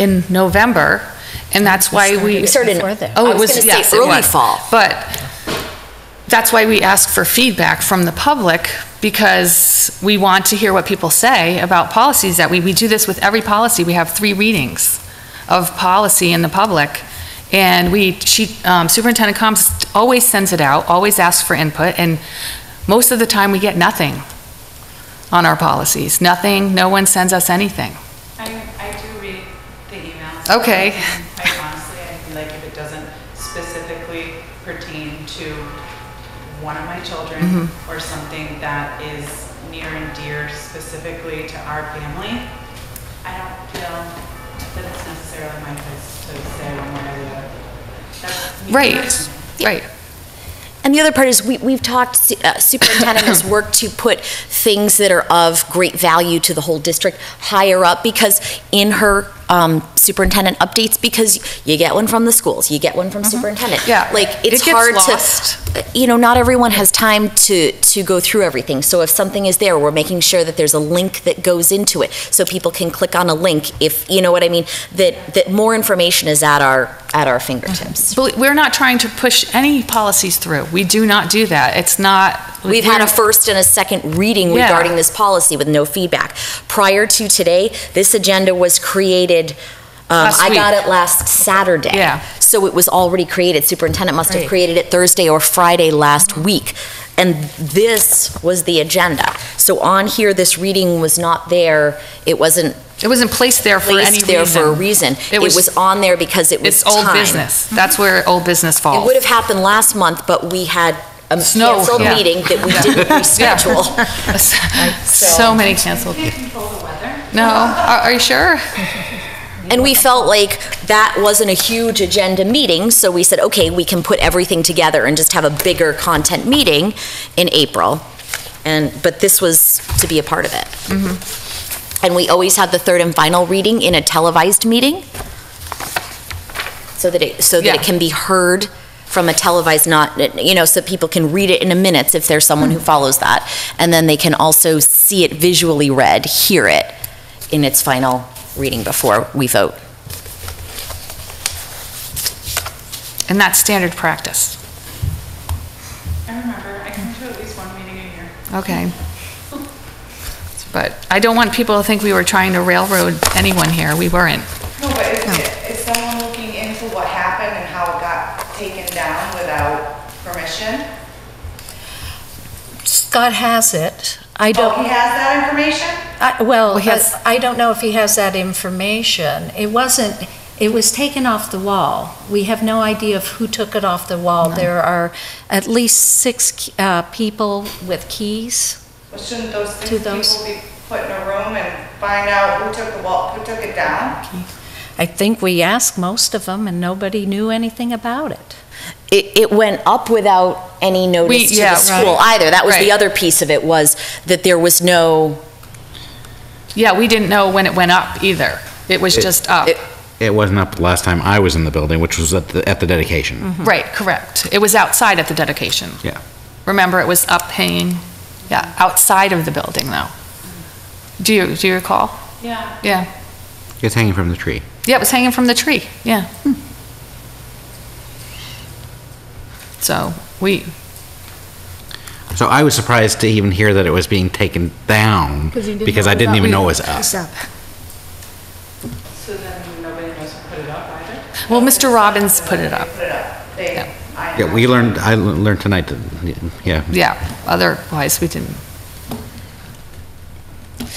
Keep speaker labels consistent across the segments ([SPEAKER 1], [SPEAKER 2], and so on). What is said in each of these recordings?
[SPEAKER 1] in November, and that's why we.
[SPEAKER 2] We started in-
[SPEAKER 1] Oh, it
[SPEAKER 2] I was
[SPEAKER 1] was,
[SPEAKER 2] gonna say
[SPEAKER 1] yes, it
[SPEAKER 2] early
[SPEAKER 1] was.
[SPEAKER 2] fall.
[SPEAKER 1] But that's why we ask for feedback from the public, because we want to hear what people say about policies that we, we do this with every policy. We have three readings of policy in the public, and we, she, um, Superintendent Combs always sends it out, always asks for input, and most of the time, we get nothing on our policies. Nothing, no one sends us anything.
[SPEAKER 3] I, I do read the emails.
[SPEAKER 1] Okay.
[SPEAKER 3] And Quite honestly, I feel like if it doesn't specifically pertain to one of my children
[SPEAKER 1] Mm-hmm.
[SPEAKER 3] or something that is near and dear specifically to our family, I don't feel that it's necessarily my place to say one way or the other. That's me
[SPEAKER 1] Right,
[SPEAKER 3] personally.
[SPEAKER 1] right.
[SPEAKER 2] And the other part is we, we've talked, su- uh, superintendent has worked to put things that are of great value to the whole district higher up because in her um, superintendent updates, because you get one from the schools, you get one from superintendent.
[SPEAKER 1] Mm-hmm. Yeah.
[SPEAKER 2] Like,
[SPEAKER 1] It
[SPEAKER 2] it's
[SPEAKER 1] gets
[SPEAKER 2] hard
[SPEAKER 1] lost.
[SPEAKER 2] to, uh, you know, not everyone has time to, to go through everything. So if something is there, we're making sure that there's a link that goes into it so people can click on a link if, you know what I mean? That, that more information is at our, at our fingertips.
[SPEAKER 1] Bel- We're not trying to push any policies through. We do not do that. It's not.
[SPEAKER 2] We've had a first and a second reading
[SPEAKER 1] Yeah.
[SPEAKER 2] regarding this policy with no feedback. Prior to today, this agenda was created, um,
[SPEAKER 1] Last
[SPEAKER 2] I got
[SPEAKER 1] week.
[SPEAKER 2] it last Saturday.
[SPEAKER 1] Yeah.
[SPEAKER 2] So it was already created. Superintendent must have
[SPEAKER 1] Right.
[SPEAKER 2] created it Thursday or Friday last week. And this was the agenda. So on here, this reading was not there. It wasn't
[SPEAKER 1] It wasn't placed there for any
[SPEAKER 2] placed
[SPEAKER 1] reason.
[SPEAKER 2] there for a reason.
[SPEAKER 1] It
[SPEAKER 2] It
[SPEAKER 1] was-
[SPEAKER 2] was on there because it
[SPEAKER 1] It's
[SPEAKER 2] was time.
[SPEAKER 1] old business. That's where old business
[SPEAKER 2] It
[SPEAKER 1] falls.
[SPEAKER 2] would have happened last month, but we had a
[SPEAKER 1] Snow,
[SPEAKER 2] canceled
[SPEAKER 1] yeah.
[SPEAKER 2] meeting that we didn't reschedule.
[SPEAKER 1] So many canceled.
[SPEAKER 3] You can't control the weather.
[SPEAKER 1] No, are are you sure?
[SPEAKER 2] And we felt like that wasn't a huge agenda meeting, so we said, okay, we can put everything together and just have a bigger content meeting in April. And, but this was to be a part of it. And we always had the third and final reading in a televised meeting, so that it, so that
[SPEAKER 1] Yeah.
[SPEAKER 2] it can be heard from a televised, not, you know, so people can read it in the minutes if there's someone who follows that. And then they can also see it visually read, hear it in its final reading before we vote.
[SPEAKER 1] And that's standard practice.
[SPEAKER 3] I remember, I come to at least one meeting a year.
[SPEAKER 1] Okay. But I don't want people to think we were trying to railroad anyone here. We weren't.
[SPEAKER 3] No, but is, is someone looking into what happened and how it got taken down without permission?
[SPEAKER 4] Scott has it. I
[SPEAKER 3] Oh,
[SPEAKER 4] don't,
[SPEAKER 3] he has that information?
[SPEAKER 4] I- well,
[SPEAKER 1] Well, he has-
[SPEAKER 4] I I don't know if he has that information. It wasn't, it was taken off the wall. We have no idea of who took it off the wall. There are at least six uh, people with keys.
[SPEAKER 3] Well, shouldn't those six
[SPEAKER 4] To those-
[SPEAKER 3] people be put in a room and find out who took the wall, who took it down?
[SPEAKER 4] I think we asked most of them, and nobody knew anything about it.
[SPEAKER 2] It, it went up without any
[SPEAKER 1] We-
[SPEAKER 2] notice to
[SPEAKER 1] yeah,
[SPEAKER 2] the school
[SPEAKER 1] right.
[SPEAKER 2] either. That was
[SPEAKER 1] Right.
[SPEAKER 2] the other piece of it, was that there was no,
[SPEAKER 1] Yeah, we didn't know when it went up either. It was just up.
[SPEAKER 2] it-
[SPEAKER 5] It wasn't up the last time I was in the building, which was at the, at the dedication.
[SPEAKER 1] Right, correct. It was outside at the dedication.
[SPEAKER 5] Yeah.
[SPEAKER 1] Remember, it was up hanging, yeah, outside of the building, though. Do you, do you recall?
[SPEAKER 3] Yeah.
[SPEAKER 1] Yeah.
[SPEAKER 5] It's hanging from the tree.
[SPEAKER 1] Yeah, it was hanging from the tree, yeah. Hmm. So, we,
[SPEAKER 5] So I was surprised to even hear that it was being taken down because I didn't even know it was up.
[SPEAKER 3] So then nobody knows who put it up either?
[SPEAKER 1] well, Mr. Robbins put it up,
[SPEAKER 3] They put it up. They,
[SPEAKER 1] Yeah.
[SPEAKER 3] I.
[SPEAKER 5] Yeah, we learned, I learned tonight, that- yeah.
[SPEAKER 1] yeah. Otherwise, we didn't.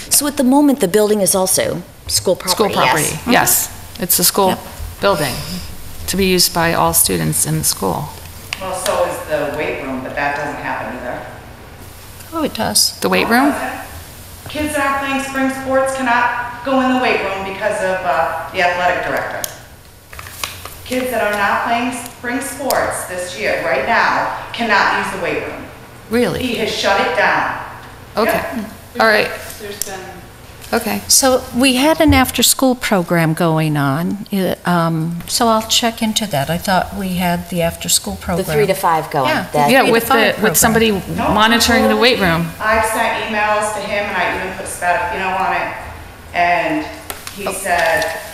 [SPEAKER 2] so at the moment, the building is also school
[SPEAKER 1] School
[SPEAKER 2] property, yes.
[SPEAKER 1] property, yes. It's a school building to be used by all students in the school.
[SPEAKER 3] Well, so is the weight room, but that doesn't happen either.
[SPEAKER 4] Oh, it does.
[SPEAKER 1] The weight room?
[SPEAKER 3] Kids that are playing spring sports cannot go in the weight room because of, uh, the athletic director. Kids that are not playing spring sports this year, right now, cannot use the weight room. He
[SPEAKER 1] Really?
[SPEAKER 3] has shut it down.
[SPEAKER 1] Okay, all right,
[SPEAKER 3] There's been
[SPEAKER 1] okay.
[SPEAKER 4] So we had an after-school program going on, uh, um, so I'll check into that. I thought we had the after-school
[SPEAKER 2] The
[SPEAKER 4] program.
[SPEAKER 2] three to five going.
[SPEAKER 4] Yeah.
[SPEAKER 2] that-
[SPEAKER 1] Yeah,
[SPEAKER 4] Three to
[SPEAKER 1] with
[SPEAKER 4] five
[SPEAKER 1] the,
[SPEAKER 4] program.
[SPEAKER 1] with somebody
[SPEAKER 3] No,
[SPEAKER 1] monitoring the weight room.
[SPEAKER 3] I've
[SPEAKER 1] Oh.
[SPEAKER 3] sent emails to him and I even put Spadafino on it. And he said,